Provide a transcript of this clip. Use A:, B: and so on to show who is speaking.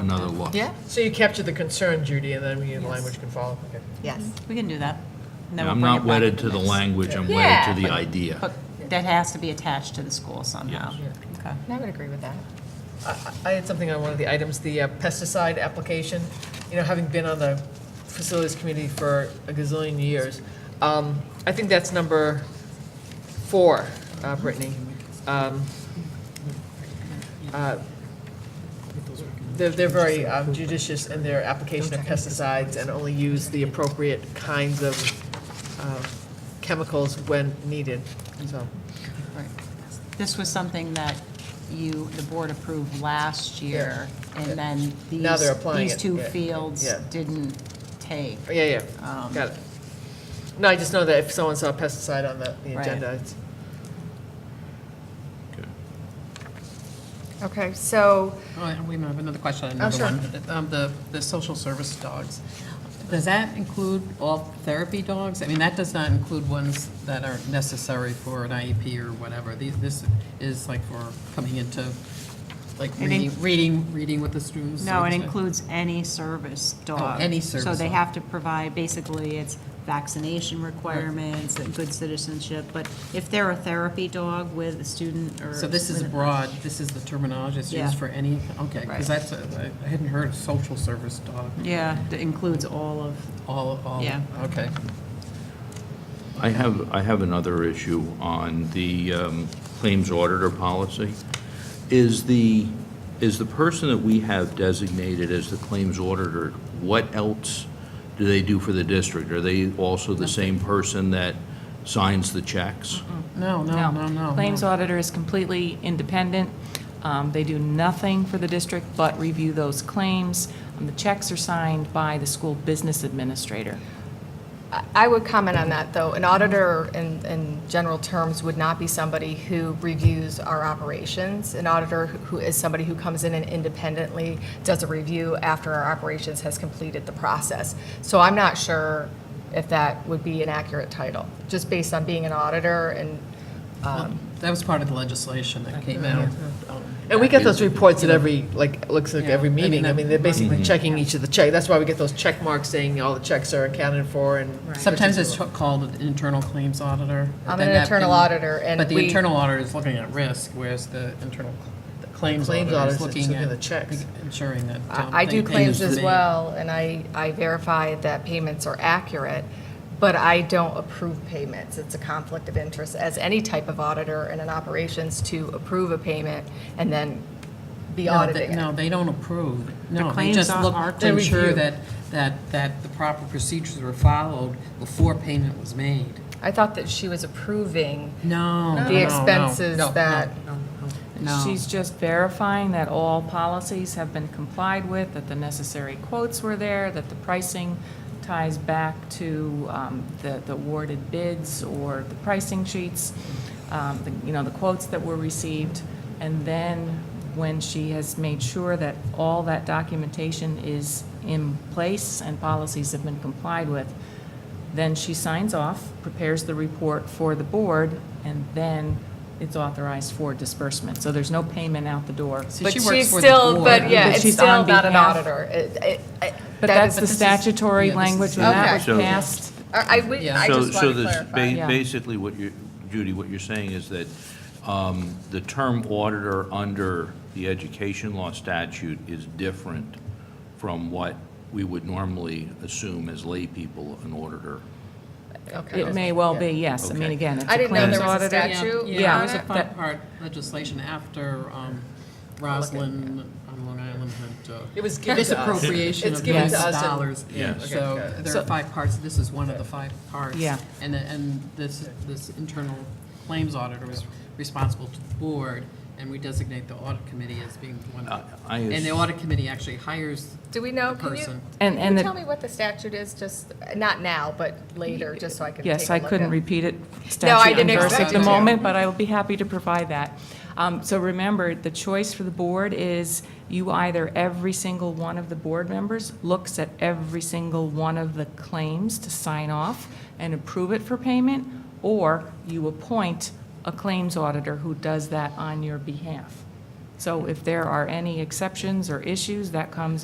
A: another look.
B: Yeah,
C: So you capture the concern, Judy, and then we, the language can follow. Okay.
B: yes.
D: We can do that. And then we'll
A: I'm
D: bring it
A: not
D: back
A: wedded
D: at
A: to the
D: next-
A: language, I'm
B: Yeah.
A: wedded to the idea.
D: But that has to be attached to the school somehow.
C: Yes.
D: Okay.
B: I would agree with that.
C: I- I had something on one of the items, the uh, pesticide application. You know, having been on the facilities committee for a gazillion years, um, I think that's number four, uh, Brittany. Um, uh, They're, they're very um, judicious in their application of pesticides and only use the appropriate kinds of uh, chemicals when needed, so.
D: Right. This was something that you, the board approved last year, and then
C: Now they're
D: these,
C: applying
D: these
C: it.
D: two
C: Yeah.
D: fields
C: Yeah. Oh,
D: didn't take.
C: Yeah, yeah,
D: Um,
C: got it. No, I just know that if someone saw pesticide on the, the
D: Right.
C: agenda, it's,
A: Okay.
B: Okay, so,
E: Oh, and we have another question, on
B: Oh,
E: another
B: sure.
E: one. Um, The, the social service dogs, does that include all therapy dogs? I mean, that does not include ones that are necessary for an IEP or whatever. These, this is like for coming into, like
D: It
E: reading,
D: in-
E: reading, reading with the students.
D: No, it
E: like,
D: includes any service
C: Oh,
D: dog.
E: any
D: So
E: service
D: they
E: dog.
D: have to provide, basically, it's vaccination requirements, and good citizenship, but if they're a therapy dog with a student or.
E: So this is
D: with a-
E: broad, this is the terminology that's
D: Yeah.
E: used for any, okay, because
D: Right.
E: that's, a- I hadn't heard of social service dog,
D: Yeah, it includes all of,
E: all, all,
D: Yeah.
E: okay.
A: I have, I have another issue on the um, claims auditor policy. Is the, is the person that we have designated as the claims auditor, what else do they do for the district? Are they also the same person that signs the checks?
E: No, no, no, no.
F: Claims
E: no.
F: auditor is completely independent. Um, They do nothing for the district but review those claims. Um, The checks are signed by the school business administrator.
B: I- I would comment on that, though. An auditor, in, in general terms, would not be somebody who reviews our operations. An auditor who is somebody who comes in and independently does a review after our operations has completed the process. So I'm not sure if that would be an accurate title, just based on being an auditor and, um,
E: That was part of the legislation that came out.
D: uh,
E: Um,
C: and we get those reports at every, like, looks like
E: Yeah,
C: every
E: I mean,
C: meeting. I
E: that-
C: mean, they're basically checking each of the check, that's why we get those check marks saying all the checks are accounted for and.
E: Sometimes it's called an internal claims auditor.
B: I'm
E: then
B: an
E: that
B: internal
E: can-
B: auditor, and
E: But the
B: we-
E: internal auditor is looking at risk, whereas the internal the claims
C: Claims
E: auditor
C: auditor's
E: is
C: just
E: looking
C: looking at
E: at.
C: the checks.
E: Ensuring that. um,
B: I I do
E: they-
B: claims
E: they-
B: as well, and I, I verify that payments are accurate, but I don't approve payments. It's a conflict of interest as any type of auditor in an operations to approve a payment and then be
E: No, they-
B: auditing it.
E: No, they don't approve. No, they
D: claims
E: just
D: au-
E: look
D: are
E: to ensure
C: review.
E: that, that, that the proper procedures were followed before payment was made.
B: I thought that she was approving
E: No. no,
B: the
E: no,
B: expenses
E: no, no,
B: that,
E: No.
F: She's just verifying that all policies have been complied with, that the necessary quotes were there, that the pricing ties back to um, the the awarded bids or the pricing sheets, um, the- you know, the quotes that were received. And then when she has made sure that all that documentation is in place and policies have been complied with, then she signs off, prepares the report for the board, and then it's authorized for disbursement. So there's no payment out the door.
E: See,
B: but
E: she
B: she's
E: works for the
B: still,
E: board.
B: but yeah,
F: But
B: it's
F: she's
B: still
F: on
B: not an
F: behalf-
B: auditor. It- it- I-
F: But
B: that-
F: that's the
E: this is-
F: statutory
E: yeah, this is-
F: language when that was
A: Okay. So-
F: passed.
B: I, I would-
A: So-
B: I just wanted to
A: So this,
B: clarify.
A: ba-
F: Yeah.
A: basically, what you, Judy, what you're saying is that um, the term auditor under the education law statute is different from what we would normally assume as laypeople an auditor.
B: Okay.
F: It may well be, yes. I mean,
A: Okay.
F: again, it's
B: I
F: a
B: didn't know
F: claims
B: there was a
F: auditor.
B: statute
F: Yeah.
E: Yeah, it was a
F: on it?
E: fun
F: That-
E: part legislation after um, Roslyn on Long Island had. uh,
C: It was given to us.
E: Misappropriation
C: It's
E: of
C: given
E: these
C: to us in-
E: dollars.
A: Yes.
C: Okay,
E: So
C: got it.
E: there are five parts, this is one of the five parts.
F: Yeah.
E: And, and this, this internal claims auditor is responsible to the board, and we designate the audit committee as being one of them.
A: I- I
E: And the
A: ass-
E: audit committee actually hires
B: Do we know,
E: the
B: can you,
E: person.
F: And,
B: can
F: and
B: you tell
F: the,
B: me what the statute is, just, not now, but later, just so I can take a look at
F: yes, I couldn't
B: it?
F: repeat it
B: No, I
F: statute
B: didn't
F: and verse
B: expect
F: at
B: you
F: the
B: to.
F: moment, but I will be happy to provide that. Um, So remember, the choice for the board is you either, every single one of the board members looks at every single one of the claims to sign off and approve it for payment, or you appoint a claims auditor who does that on your behalf. So if there are any exceptions or issues, that comes